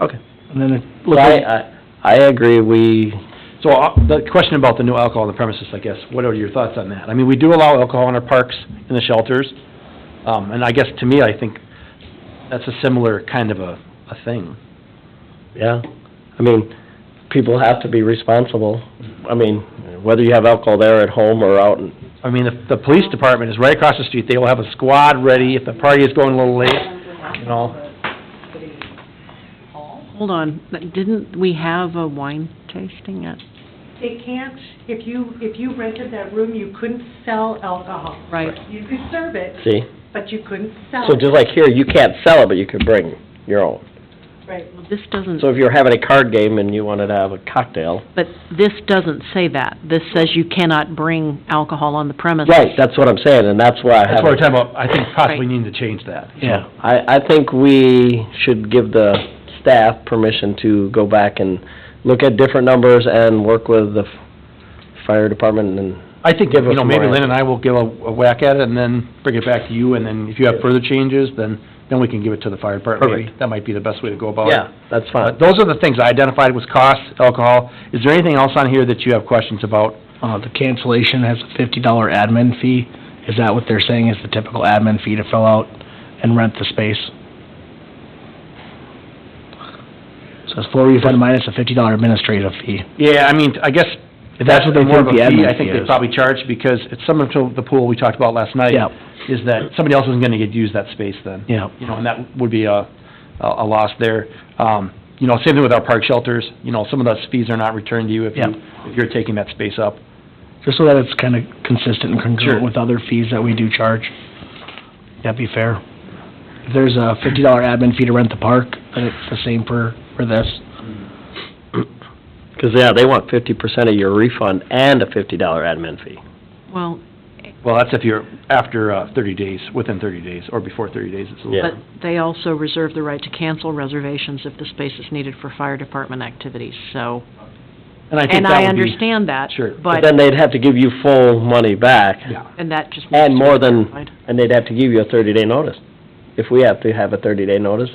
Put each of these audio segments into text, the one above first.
Okay. And then it So looks I, like, I, I agree, we, So uh, the question about the no alcohol on the premises, I guess, what are your thoughts on that? I mean, we do allow alcohol in our parks, in the shelters, um, and I guess to me, I think that's a similar kind of a, a thing. yeah, I mean, people have to be responsible. I mean, whether you have alcohol there at home or out, in- I mean, if the police department is right across the street, they will have a squad ready if the party is going a little late. you know. Hold on, but didn't we have a wine tasting at, They can't, if you, if you rented that room, you couldn't sell alcohol. right? You could serve it, see? but you couldn't sell So it. just like here, you can't sell it, but you can bring your own. Right. Well, This doesn't, So if you're having a card game and you wanted to have a cocktail, but this doesn't say that. This says you cannot bring alcohol on the premises. right, that's what I'm saying, and that's why I have. That's what we're talking about, I think possibly need to change that. Yeah, I, I think we should give the staff permission to go back and look at different numbers and work with the f- fire department and, I think, Give us you know, maybe more Lynn and I will give a a whack at it and then bring it back to you, and then if you have further changes, then, then we can give it to the fire department. maybe. Perfect. That might be the best way to go about it. yeah, that's Uh, fine. Those are the things I identified was cost, alcohol. Is there anything else on here that you have questions about? uh, the cancellation has a fifty dollar admin fee. Is that what they're saying is the typical admin fee to fill out and rent the space? So it's full refund minus a fifty dollar administrative fee. Yeah, I mean, I guess If that's what they more of a think the fee, admin I think fee they is. probably charge because it's similar to the pool we talked about last night. Yeah, Is that somebody else isn't gonna get, use that space then. yeah. You know, and that would be a, a a loss there. Um, you know, same thing with our park shelters, you know, some of those fees are not returned to you if you, if you're taking that space up. Just so that it's kind of consistent and Sure. congruent with other fees that we do charge. That'd be fair. If there's a fifty dollar admin fee to rent the park, then it's the same for, for this. Because, yeah, they want fifty percent of your refund and a fifty dollar admin fee. Well, Well, that's if you're after, uh, thirty days, within thirty days, or before thirty days, it's a Yeah. little. but they also reserve the right to cancel reservations if the space is needed for fire department activities, so. And I think And that I would be- understand that. Sure. But But, then they'd have to give you full money back, Yeah. and that just. needs and to more be than, clarified. and they'd have to give you a thirty-day notice, if we have to have a thirty-day notice.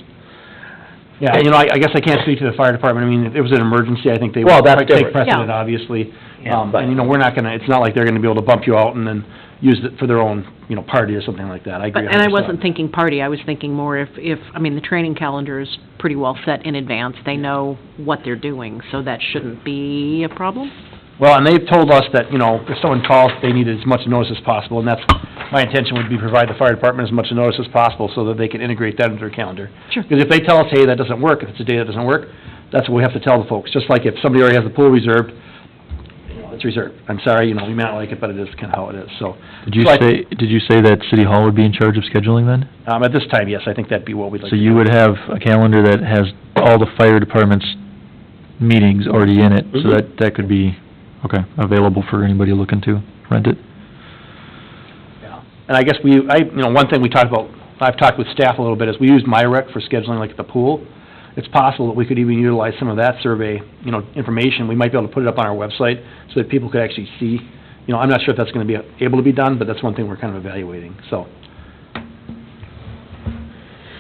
Yeah, you know, I, I guess I can't speak to the fire department, I mean, if it was an emergency, I think they would Well, that's quite take different. precedent, Yeah. obviously. Yeah, Um, and you know, we're not gonna, it's not like they're gonna be able to bump you out and then use it for their own, you know, party or something like that, I But, agree and I 100%. wasn't thinking party, I was thinking more if, if, I mean, the training calendar is pretty well set in advance. They know what they're doing, so that shouldn't be a problem. Well, and they've told us that, you know, if someone calls, they need as much notice as possible, and that's, my intention would be provide the fire department as much notice as possible so that they can integrate that into their calendar. Sure. Because if they tell us, hey, that doesn't work, if it's a day that doesn't work, that's what we have to tell the folks, just like if somebody already has the pool reserved, you know, it's reserved. I'm sorry, you know, we may not like it, but it is kinda how it is, so. Did you So I- say, did you say that City Hall would be in charge of scheduling then? Um, at this time, yes, I think that'd be what we'd like. So to you do. would have a calendar that has all the fire department's meetings already in it, so Mhm. that, that could be, okay, available for anybody looking to rent it? And I guess we, I, you know, one thing we talked about, I've talked with staff a little bit, is we use MyRec for scheduling like at the pool. It's possible that we could even utilize some of that survey, you know, information. We might be able to put it up on our website so that people could actually see. You know, I'm not sure if that's gonna be able to be done, but that's one thing we're kind of evaluating, so.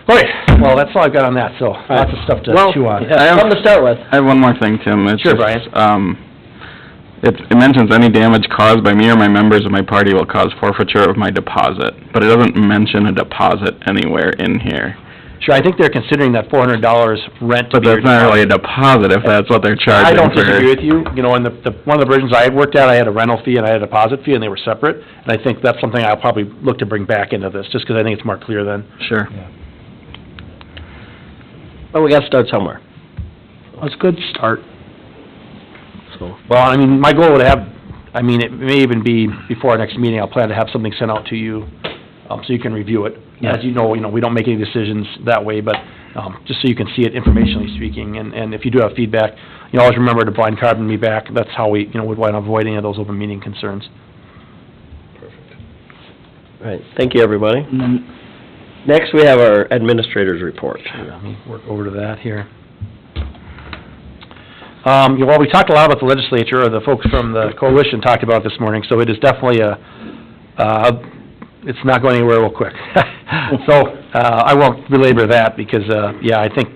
All right, well, that's all I've got on that, so lots of stuff to Well, chew on. I have- Something to start with. I have one more thing, Tim. It's Sure, just, Brian. Um, it, it mentions any damage caused by me or my members of my party will cause forfeiture of my deposit, but it doesn't mention a deposit anywhere in here. Sure, I think they're considering that four hundred dollars rent to But be your that's not really deposit. a deposit if that's what they're charging I don't for- disagree with you, you know, in the, the, one of the versions I had worked at, I had a rental fee and I had a deposit fee, and they were separate, and I think that's something I'll probably look to bring back into this, just because I think it's more clear then. Sure. But we gotta start somewhere, That's a good start. so. Well, I mean, my goal would have, I mean, it may even be before our next meeting, I'll plan to have something sent out to you, um, so you can review it. As you know, you know, we don't make any decisions that way, but, um, just so you can see it informationally speaking, and, and if you do have feedback, you always remember to blind carbon me back, that's how we, you know, would want to avoid any of those open meeting concerns. Right, thank you, everybody. And then Next, we have our administrator's report. Let me work over to that here. Um, yeah, well, we talked a lot about the legislature, or the folks from the coalition talked about it this morning, so it is definitely a, uh, it's not going anywhere real quick. So, uh, I won't belabor that, because, uh, yeah, I think